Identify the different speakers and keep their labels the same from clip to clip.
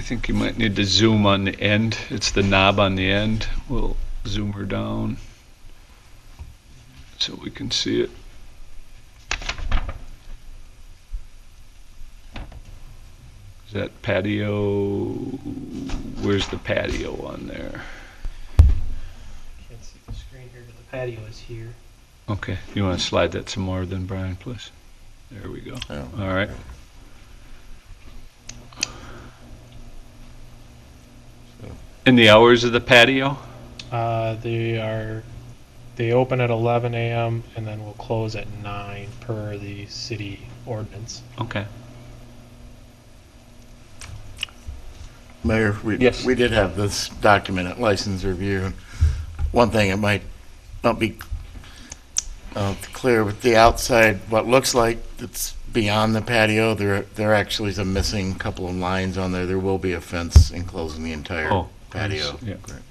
Speaker 1: think you might need to zoom on the end. It's the knob on the end. We'll zoom her down so we can see it. Is that patio? Where's the patio on there?
Speaker 2: Can't see the screen here, but the patio is here.
Speaker 1: Okay, you want to slide that some more then, Brian, please? There we go.
Speaker 3: Oh.
Speaker 1: All right. And the hours of the patio?
Speaker 2: Uh, they are, they open at eleven AM and then will close at nine per the city ordinance.
Speaker 1: Okay.
Speaker 3: Mayor, we,
Speaker 1: Yes.
Speaker 3: we did have this document at license review. One thing, it might not be uh, clear with the outside, what looks like it's beyond the patio, there, there actually is a missing couple of lines on there. There will be a fence enclosing the entire
Speaker 1: Oh,
Speaker 3: patio.
Speaker 1: yeah.
Speaker 3: Correct.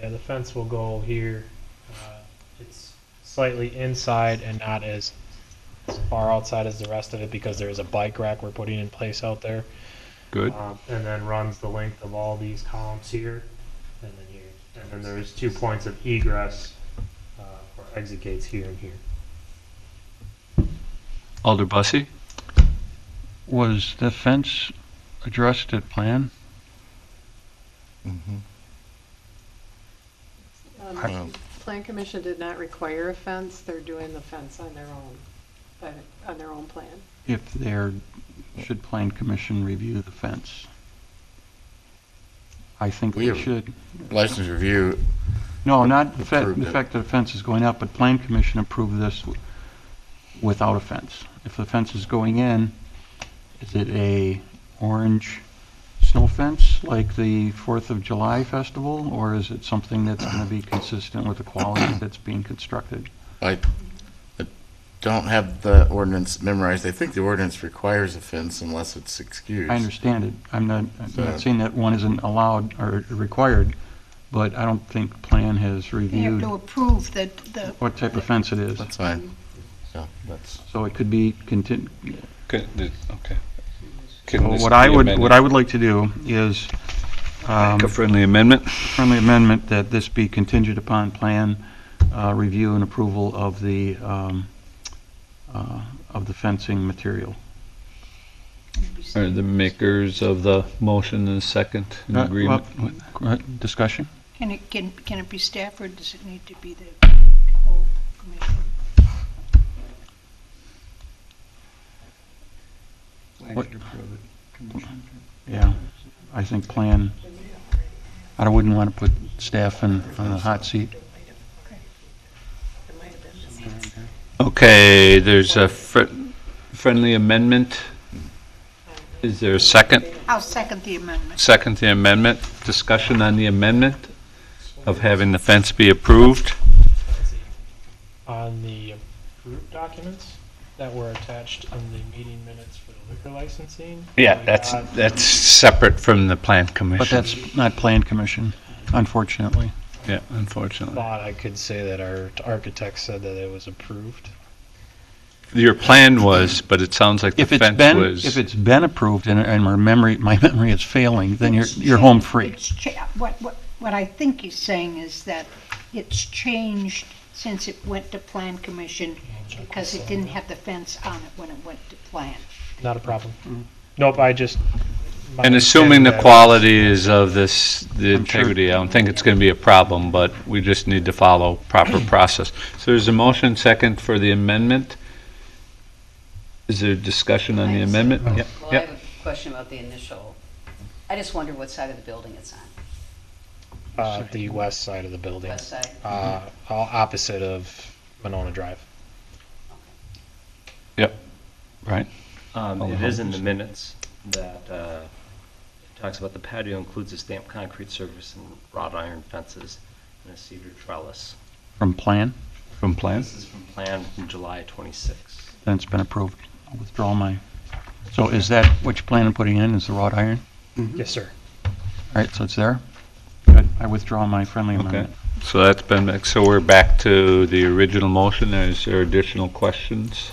Speaker 2: Yeah, the fence will go here. Uh, It's slightly inside and not as as far outside as the rest of it because there is a bike rack we're putting in place out there.
Speaker 1: Good.
Speaker 2: Um, and then runs the length of all these columns here, and then here, and then there's two points of egress, uh, or exit gates here and here.
Speaker 1: Alder Bussey?
Speaker 4: Was the fence addressed at plan?
Speaker 3: Mhm.
Speaker 5: Um,
Speaker 3: Wow.
Speaker 5: Plan Commission did not require a fence, they're doing the fence on their own, by- on their own plan.
Speaker 4: If there, should plan commission review the fence? I think
Speaker 3: We
Speaker 4: we
Speaker 3: have-
Speaker 4: should.
Speaker 3: License review,
Speaker 4: No, not the fa-
Speaker 3: approved
Speaker 4: the
Speaker 3: it.
Speaker 4: fact that the fence is going up, but plan commission approved this w- without a fence. If the fence is going in, is it a orange snow fence like the Fourth of July festival? Or is it something that's going to be consistent with the quality that's being constructed?
Speaker 3: I I don't have the ordinance memorized. I think the ordinance requires a fence unless it's excused.
Speaker 4: I understand it. I'm not, I'm
Speaker 3: So-
Speaker 4: not saying that one isn't allowed or required, but I don't think plan has
Speaker 6: They have
Speaker 4: reviewed
Speaker 6: to approve that the,
Speaker 4: what type of fence it is.
Speaker 3: That's fine. So, that's.
Speaker 4: So it could be contin,
Speaker 1: Okay. did- okay. Can this
Speaker 4: what I
Speaker 1: be
Speaker 4: would,
Speaker 1: amended?
Speaker 4: what I would like to do is, um,
Speaker 1: Make a friendly amendment?
Speaker 4: friendly amendment that this be contingent upon plan, uh, review and approval of the, um, uh, of the fencing material.
Speaker 1: Are the makers of the motion and second in
Speaker 4: Uh,
Speaker 1: agreement?
Speaker 4: well, uh, Discussion?
Speaker 6: can it, can, can it be staff or does it need to be the whole commission?
Speaker 4: What- Yeah, I think plan, I wouldn't want to put staff in, on the hot seat.
Speaker 1: Okay, there's a fri- friendly amendment. Is there a second?
Speaker 6: I'll second the amendment.
Speaker 1: Second the amendment. Discussion on the amendment of having the fence be approved?
Speaker 2: On the approved documents that were attached in the meeting minutes for the liquor licensing.
Speaker 1: Yeah,
Speaker 2: we
Speaker 1: that's,
Speaker 2: got-
Speaker 1: that's separate from the plan commission.
Speaker 4: But that's not plan commission, unfortunately.
Speaker 1: Yeah, unfortunately.
Speaker 2: Thought I could say that our architect said that it was approved.
Speaker 1: Your plan was, but it sounds like the
Speaker 4: If it's
Speaker 1: fence
Speaker 4: been,
Speaker 1: was.
Speaker 4: if it's been approved and, and my memory, my memory is failing, then you're,
Speaker 6: It's
Speaker 4: you're
Speaker 6: cha-
Speaker 4: home free.
Speaker 6: it's cha- What, what, what I think he's saying is that it's changed since it went to plan commission because it didn't have the fence on it when it went to plan.
Speaker 2: Not a problem. Nope, I just. my
Speaker 1: And assuming the
Speaker 2: understanding that-
Speaker 1: quality is of this, the
Speaker 4: I'm sure-
Speaker 1: integrity, I don't think it's going to be a problem, but we just need to follow proper process. So there's a motion second for the amendment. Is there discussion on the
Speaker 7: Nice.
Speaker 1: amendment?
Speaker 4: Oh.
Speaker 1: Yep,
Speaker 7: Well, I
Speaker 1: yep.
Speaker 7: have a question about the initial. I just wonder what side of the building it's on,
Speaker 2: Uh, the west side of the building,
Speaker 7: west side?
Speaker 2: uh, all opposite of Monona Drive.
Speaker 1: Right.
Speaker 8: Um,
Speaker 1: All the
Speaker 8: It is in the
Speaker 1: homes.
Speaker 8: minutes that uh, it talks about the patio includes a stamped concrete surface and wrought iron fences and a cedar trellis.
Speaker 4: From plan,
Speaker 1: From plan?
Speaker 8: This is from plan from July 26.
Speaker 4: then it's been approved. I'll withdraw my, so is that what you plan on putting in, is the wrought iron?
Speaker 2: Yes, sir.
Speaker 4: All right, so it's there? Good, I withdraw my friendly
Speaker 1: Okay.
Speaker 4: amendment.
Speaker 1: So that's been, so we're back to the original motion. Is there additional questions?